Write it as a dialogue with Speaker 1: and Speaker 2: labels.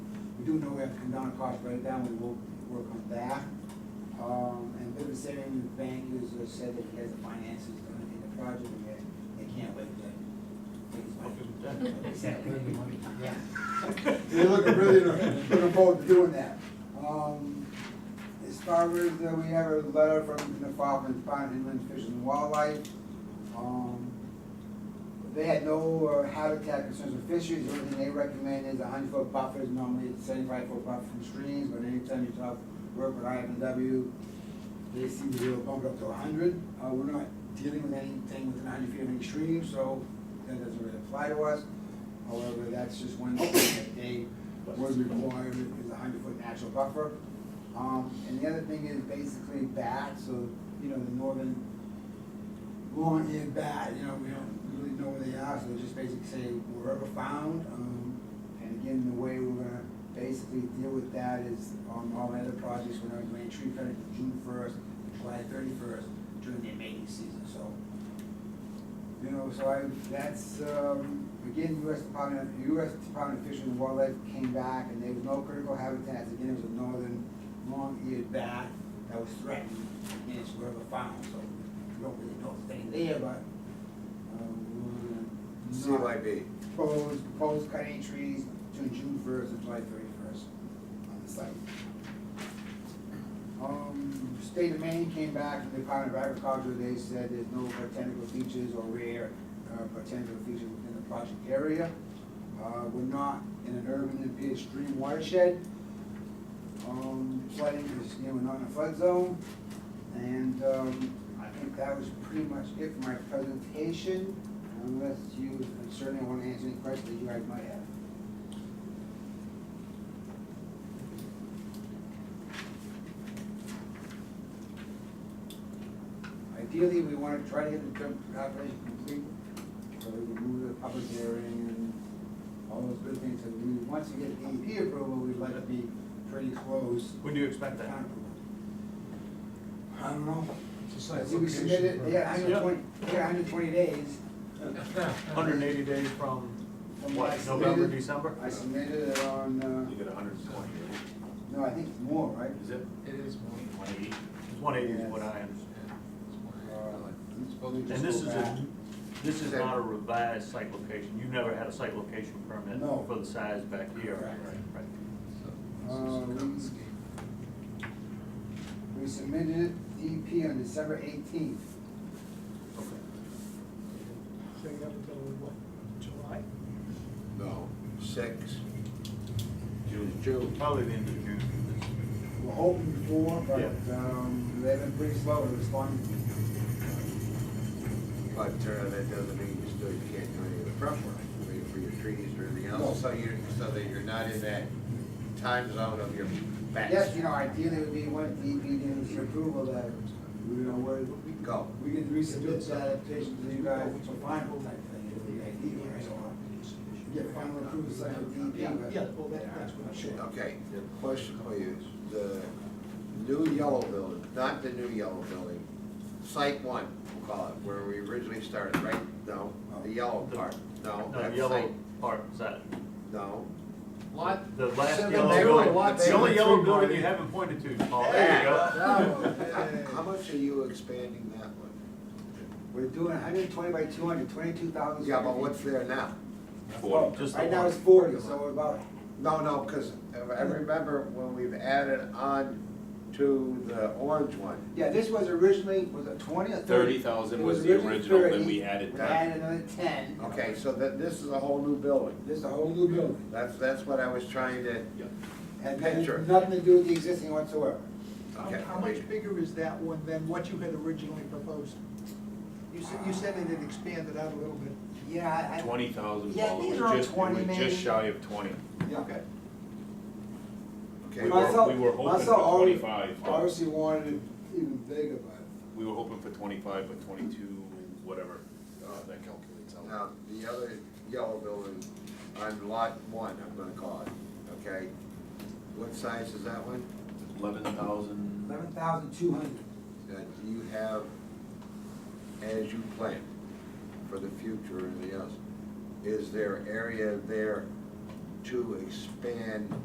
Speaker 1: do know we have to come down and cost break down, we will work on that. Um, and Viviserin Bank has uh, said that he has the finances done in the project, and they, they can't wait to take his money. They said, "Give me money." Yeah. They're looking really, looking forward to doing that. Um, as far as, uh, we have a letter from the Department of Pond Inland Fish and Wildlife. Um, they had no uh, habitat concerns with fisheries, the only thing they recommend is a hundred foot buffer, is normally it's seventy-five foot buffer from streams, but anytime you talk, work with IFNW, they seem to be able to bump it up to a hundred, uh, we're not dealing with anything within hundred feet of any stream, so that doesn't really apply to us. However, that's just one thing that they was required, is a hundred foot natural buffer. Um, and the other thing is basically bat, so, you know, the northern lawn is bad, you know, we don't really know where they are, so just basically say wherever found. Um, and again, the way we're gonna basically deal with that is on all the other projects, we're gonna doing tree cutting from June first, July thirty-first during their mating season, so. You know, so I, that's, um, again, US Department, US Department of Fish and Wildlife came back and there was no critical habitats, again, it was a northern long-eared bat that was threatened, and it's wherever found, so we don't really know if it's there, but, um, we're gonna not
Speaker 2: CYB.
Speaker 1: propose, propose cutting trees between June first and July thirty-first on the site. Um, state of Maine came back from the Department of Agriculture, they said there's no botanical features or rare uh, botanical features within the project area. Uh, we're not in an urban impaired stream watershed. Um, flooding is, you know, we're not in a flood zone. And, um, I think that was pretty much it for my presentation, unless you certainly wanna answer any questions that you guys might have. Ideally, we wanna try to get the term application complete, so we can move to the public hearing and all those good things, and we, once you get DEP approval, we'd like to be pretty close.
Speaker 3: When do you expect
Speaker 1: to
Speaker 3: that?
Speaker 1: town approval. I don't know,
Speaker 4: It's a
Speaker 1: I
Speaker 4: site
Speaker 1: think we submitted,
Speaker 4: location.
Speaker 1: yeah, hundred twenty, yeah, hundred twenty days
Speaker 3: Hundred and eighty days from
Speaker 1: from what I
Speaker 3: what, November,
Speaker 1: submitted.
Speaker 3: December?
Speaker 1: I submitted it on,
Speaker 2: You
Speaker 1: uh,
Speaker 2: get a hundred and twenty, right?
Speaker 1: no, I think it's more, right?
Speaker 2: is it?
Speaker 4: It is more.
Speaker 2: One eighty?
Speaker 3: It's one eighty is what I
Speaker 4: yeah,
Speaker 3: understand.
Speaker 4: it's more.
Speaker 1: Uh,
Speaker 3: And this is a, this is not a revised site location. You've never had a site location permit
Speaker 1: No.
Speaker 3: for the size back here.
Speaker 1: Correct.
Speaker 3: Right.
Speaker 4: So,
Speaker 1: Um,
Speaker 4: it's a common scheme.
Speaker 1: We submitted DEP on December eighteenth.
Speaker 5: So you have until what, July?
Speaker 2: No, six. June. June. Probably the end of June.
Speaker 1: We're hoping for, but,
Speaker 3: Yeah.
Speaker 1: um, they've been pretty slow in responding.
Speaker 2: But uh, that doesn't mean you still, you can't do any of the prep work, I mean, for your trees or anything else, so you, so that you're not in that time zone of your back.
Speaker 1: Yes, you know, ideally it would be one E DEP gives your approval that, you know, we're,
Speaker 2: Go.
Speaker 1: we can resubmit that application to you guys for final type thing, it would be ideal, E right? So, Get final approval, site of DEP, E but.
Speaker 5: Yeah, well, that, that's what I'm sure.
Speaker 6: Okay, the question for you is, the new yellow building, not the new yellow building, site one, we'll call it, where we originally started, right? No, the yellow part, no,
Speaker 3: No,
Speaker 6: that's
Speaker 3: yellow
Speaker 6: site,
Speaker 3: part, is that,
Speaker 6: no.
Speaker 2: Lot.
Speaker 3: the last
Speaker 2: Seven,
Speaker 3: yellow
Speaker 2: they
Speaker 3: building.
Speaker 2: only want-
Speaker 3: It's
Speaker 2: they
Speaker 3: The only
Speaker 2: only
Speaker 3: yellow
Speaker 2: three
Speaker 3: building
Speaker 2: parties.
Speaker 3: you haven't pointed to, Paul. There you go.
Speaker 1: Oh,
Speaker 6: How
Speaker 2: go.
Speaker 6: how much are you expanding that one?
Speaker 1: We're doing hundred and twenty by 200, 22,000
Speaker 6: Yeah,
Speaker 1: square
Speaker 6: but
Speaker 1: feet.
Speaker 6: what's there now?
Speaker 1: Forty.
Speaker 3: Just the
Speaker 1: Right now
Speaker 3: one.
Speaker 1: it's forty, so we're about,
Speaker 6: No, no, because I remember when we've added on to the orange one,
Speaker 1: yeah, this was originally, was it twenty or thirty?
Speaker 7: Thirty thousand
Speaker 1: It
Speaker 7: was the
Speaker 1: originally
Speaker 7: original, then
Speaker 1: 30,
Speaker 7: we added
Speaker 1: We
Speaker 7: ten.
Speaker 1: added another ten.
Speaker 6: okay, so that, this is a whole new building.
Speaker 1: This is a whole new building.
Speaker 6: That's, that's what I was trying to,
Speaker 1: And then
Speaker 6: Picture.
Speaker 1: nothing to do with the existing whatsoever.
Speaker 5: How,
Speaker 6: okay.
Speaker 5: how
Speaker 6: wait.
Speaker 5: much bigger is that one than what you had originally proposed? You said, you said it had expanded out a little bit.
Speaker 1: Yeah, I, I.
Speaker 7: Twenty thousand,
Speaker 1: Yeah,
Speaker 7: Paul,
Speaker 1: these
Speaker 7: it
Speaker 1: are all
Speaker 7: was just, it
Speaker 1: 20
Speaker 7: was
Speaker 1: maybe.
Speaker 7: just shy of twenty.
Speaker 1: Yeah.
Speaker 5: Okay.
Speaker 6: Okay,
Speaker 7: We
Speaker 1: Marcel-
Speaker 7: were, we were hoping
Speaker 1: Marcel
Speaker 7: for
Speaker 1: already-
Speaker 7: twenty-five, but,
Speaker 1: Obviously wanted it even bigger,
Speaker 7: we were hoping for twenty-five, but twenty-two, whatever, uh, that calculates out.
Speaker 6: Now, the other yellow building on lot one, I'm gonna call it, okay? What size is that one?
Speaker 7: Eleven
Speaker 1: but
Speaker 7: thousand,
Speaker 1: eleven thousand two hundred.
Speaker 6: That you have as you plan for the future and the else. Is there area there to expand